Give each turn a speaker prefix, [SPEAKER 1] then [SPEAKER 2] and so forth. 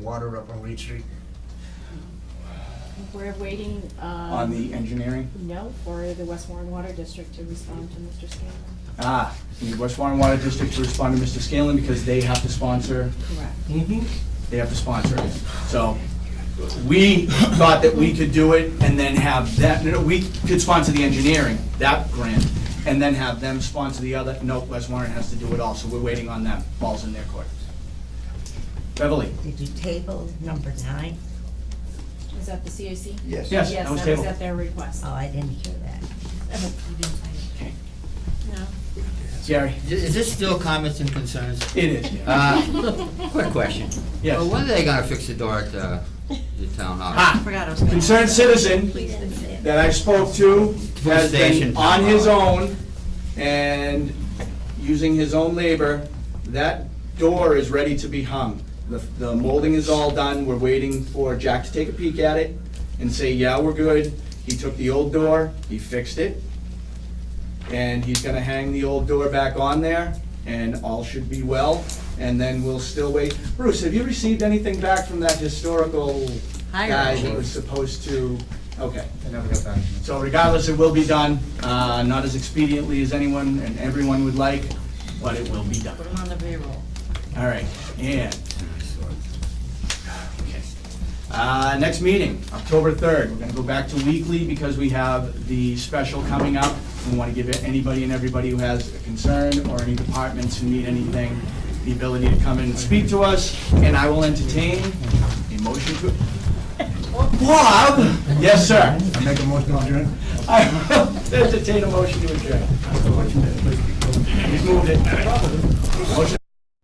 [SPEAKER 1] water up on Reed Street?
[SPEAKER 2] We're waiting, um.
[SPEAKER 3] on the engineering.
[SPEAKER 2] No, for the West Warren Water District to respond to Mr. Scanlon.
[SPEAKER 3] Ah, the West Warren Water District to respond to Mr. Scanlon because they have to sponsor,
[SPEAKER 2] Correct.
[SPEAKER 3] they have to sponsor it. So we thought that we could do it and then have that, no, we could sponsor the engineering, that grant, and then have them sponsor the other. No, West Warren has to do it all, so we're waiting on that. Ball's in their court. Beverly?
[SPEAKER 4] Did you table number nine?
[SPEAKER 2] Is that the CAC?
[SPEAKER 3] Yes,
[SPEAKER 5] Yes.
[SPEAKER 3] that was
[SPEAKER 2] Yes, that was
[SPEAKER 3] tabled.
[SPEAKER 2] at their request.
[SPEAKER 4] Oh, I didn't hear that.
[SPEAKER 3] Okay.
[SPEAKER 2] No?
[SPEAKER 3] Gary?
[SPEAKER 5] Is this still comments and concerns?
[SPEAKER 3] It is, yeah.
[SPEAKER 5] Uh, Quick question.
[SPEAKER 3] Yes.
[SPEAKER 5] Uh, When are they gonna fix the door at uh, the town hall?
[SPEAKER 3] Ah, concerned citizen that I spoke to has been
[SPEAKER 5] station.
[SPEAKER 3] on his own and using his own labor. That door is ready to be hung. The, the molding is all done, we're waiting for Jack to take a peek at it and say, yeah, we're good. He took the old door, he fixed it, and he's gonna hang the old door back on there, and all should be well, and then we'll still wait. Bruce, have you received anything back from that historical guy that was supposed to, okay.
[SPEAKER 6] I never got back to you.
[SPEAKER 3] So regardless, it will be done, uh, not as expediently as anyone and everyone would like, but it will be done.
[SPEAKER 4] Put them on the payroll.
[SPEAKER 3] All right, and, okay. Uh, next meeting, October third, we're gonna go back to weekly because we have the special coming up. We wanna give anybody and everybody who has a concern or any departments who need anything, the ability to come in and speak to us, and I will entertain a motion to. Bob? Yes, sir.
[SPEAKER 1] I make a motion to adjourn?
[SPEAKER 3] I will entertain a motion to adjourn. He's moved it. Motion